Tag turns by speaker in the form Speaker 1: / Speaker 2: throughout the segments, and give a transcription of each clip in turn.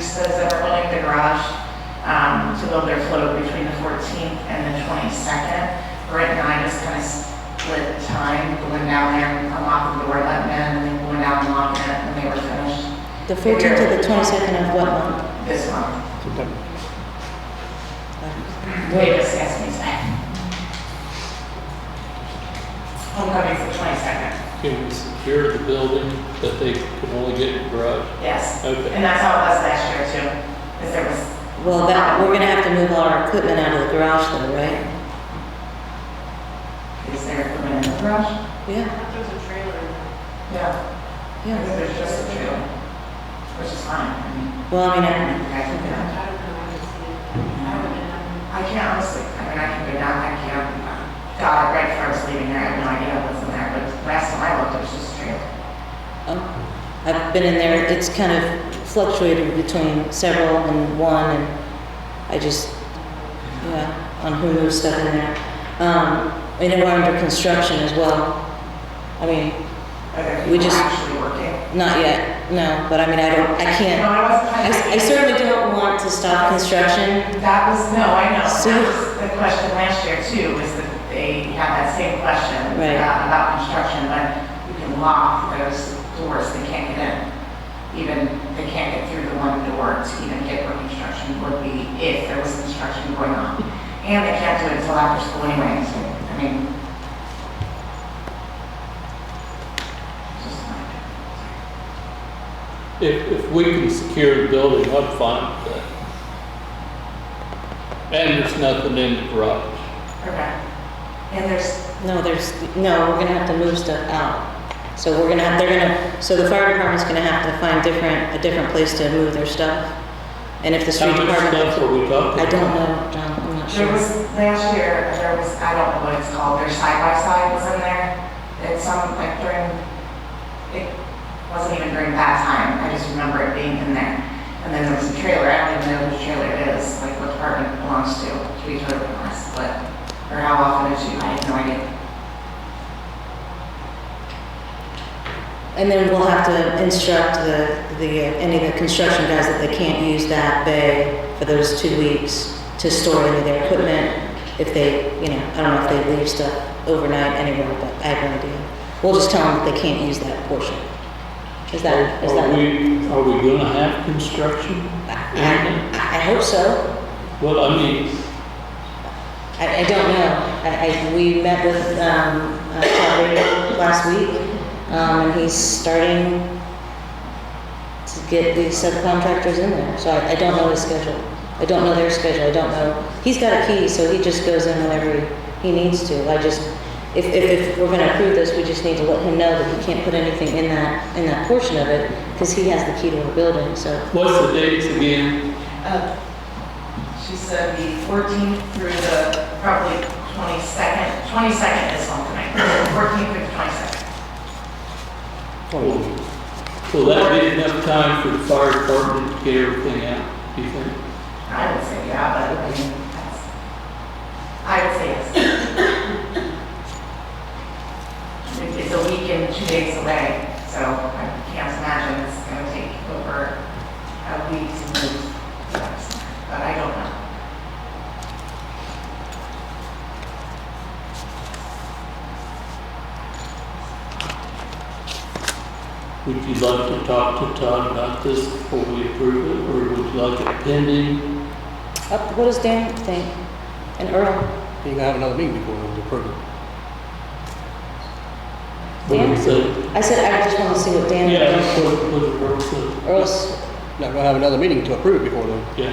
Speaker 1: says that we're building the garage um, to build their float between the 14th and the 22nd. Right now, I just kind of split time, going down there and unlocking the door, letting in, and then going down and locking it when they were finished.
Speaker 2: The 14th to the 22nd of what month?
Speaker 1: This month.
Speaker 2: Wait.
Speaker 1: They just asked me today. Homecoming's the 22nd,
Speaker 3: Can we secure the building that they could only get in garage?
Speaker 1: yes.
Speaker 3: Okay.
Speaker 1: And that's how it was last year too, is there was,
Speaker 2: Well, that, we're gonna have to move all our equipment out of the garage though, right?
Speaker 1: is there equipment in the garage?
Speaker 2: Yeah,
Speaker 4: There's a trailer.
Speaker 1: Yeah. I
Speaker 2: yeah.
Speaker 1: think there's just a two, which is fine. I mean,
Speaker 2: Well, I mean,
Speaker 1: I
Speaker 2: I-
Speaker 1: think I can,
Speaker 4: I
Speaker 1: go.
Speaker 4: don't know, I just see it. I haven't been down
Speaker 1: I can honestly, I mean, I can go down, I can't, God, right before I was leaving there, I had no idea what's in there, but last time I looked, it was just a trailer.
Speaker 2: oh, I've been in there, it's kind of fluctuated between several and one, and I just, yeah, on who moves stuff in there. Um, I know we're under construction as well. I mean,
Speaker 1: Are there
Speaker 2: We
Speaker 1: people
Speaker 2: just-
Speaker 1: actually working?
Speaker 2: not yet, no, but I mean, I don't, I
Speaker 1: No,
Speaker 2: can't,
Speaker 1: I wasn't trying
Speaker 2: I
Speaker 1: to-
Speaker 2: I certainly don't want to stop construction
Speaker 1: That was, no, I know, that
Speaker 2: So-
Speaker 1: was the question last year too, was that they had that same question
Speaker 2: Right.
Speaker 1: about about construction, but you can lock those doors, they can't get in. Even, they can't get through the one door to even get where construction would be, if there was construction going on. And they can't do it until after school anyway, so, I mean. just like-
Speaker 3: If, if we can secure the building, I'm fine with that. And there's nothing in the garage.
Speaker 1: Okay. And there's,
Speaker 2: No, there's, no, we're gonna have to move stuff out. So we're gonna, have they're gonna, so the fire department's gonna have to find different, a different place to move their stuff. And if the
Speaker 3: How
Speaker 2: street
Speaker 3: much stuff
Speaker 2: department,
Speaker 3: are we talking?
Speaker 2: I don't know, John, I'm not
Speaker 1: There
Speaker 2: sure.
Speaker 1: was, last year, there was, I don't know what it's called, their side by side was in there. It's some, like during, it wasn't even during that time, I just remember it being in there. And then there was a trailer, I don't even know which trailer it is, like what department it belongs to, to be totally honest, but, or how often it's used, I have no idea.
Speaker 2: And then we'll have to instruct the, the, uh, any of the construction guys that they can't use that bay for those two weeks to store any of their equipment. If they, you know, I don't know if they leave stuff overnight anywhere, but I have no idea. We'll just tell them that they can't use that portion. Is that, is that?
Speaker 3: Are we, are we gonna have construction?
Speaker 2: I, I hope so.
Speaker 3: Well, I mean,
Speaker 2: I, I don't know. I, I, we met with, um, uh, Todd Raybould last week, um, and he's starting to get the subcontractors in there, so I, I don't know his schedule. I don't know their schedule, I don't know. He's got a key, so he just goes in whenever he, he needs to. I just, if, if, if we're gonna approve this, we just need to let him know that he can't put anything in that, in that portion of it, because he has the key to our building, so.
Speaker 3: what's the dates again?
Speaker 1: Uh, She said the 14th through the probably 22nd, 22nd is one tonight, 14th through the 22nd.
Speaker 3: Will that be enough time for the fire department to get everything out, do you think?
Speaker 1: I would say yeah, but I mean, that's, I would say yes. It- It's a week and two days away, so I can't imagine it's gonna take over a week to move. stuff, But I don't know.
Speaker 3: Would you like to talk to Todd about this before we approve it, or would you like it pending?
Speaker 2: Up, what does Dan think? And Earl?
Speaker 5: You're gonna have another meeting before we approve it.
Speaker 3: What do you
Speaker 2: Yeah.
Speaker 3: think?
Speaker 2: I said, I just want to see what Dan.
Speaker 3: Yeah, that's what, what it works with,
Speaker 2: Earl's,
Speaker 5: Not gonna have another meeting to approve it before then.
Speaker 3: yeah.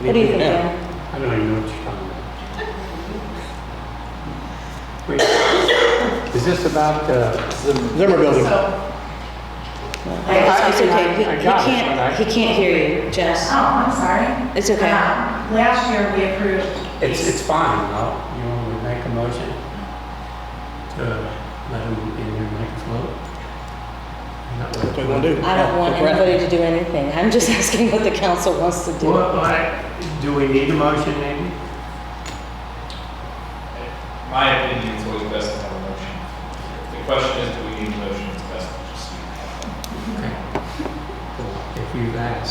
Speaker 5: So
Speaker 2: what do you think,
Speaker 5: now.
Speaker 2: Dan?
Speaker 6: I don't even know what you're talking about. Wait, Is this about, uh, Zim-
Speaker 5: Zimmer Building.
Speaker 1: So,
Speaker 2: It's- It's
Speaker 6: I- I-
Speaker 2: okay, he
Speaker 6: I
Speaker 2: he
Speaker 6: got it, but I-
Speaker 2: can't, he can't hear you,
Speaker 1: oh,
Speaker 2: Jess.
Speaker 1: I'm sorry.
Speaker 2: It's okay.
Speaker 1: Um, Last year, we approved.
Speaker 6: it's, it's fine, no? You want me to make a motion to let him in here and make a float? That's
Speaker 5: That's what we wanna do.
Speaker 2: I
Speaker 5: Oh,
Speaker 2: don't want
Speaker 5: That's right.
Speaker 2: anybody to do anything, I'm just asking what the council wants to do.
Speaker 6: What, what, do we need a motion, Andy?
Speaker 7: My opinion is always best to have a motion. The question is, do we need a motion? It's best to just.
Speaker 6: If you've asked.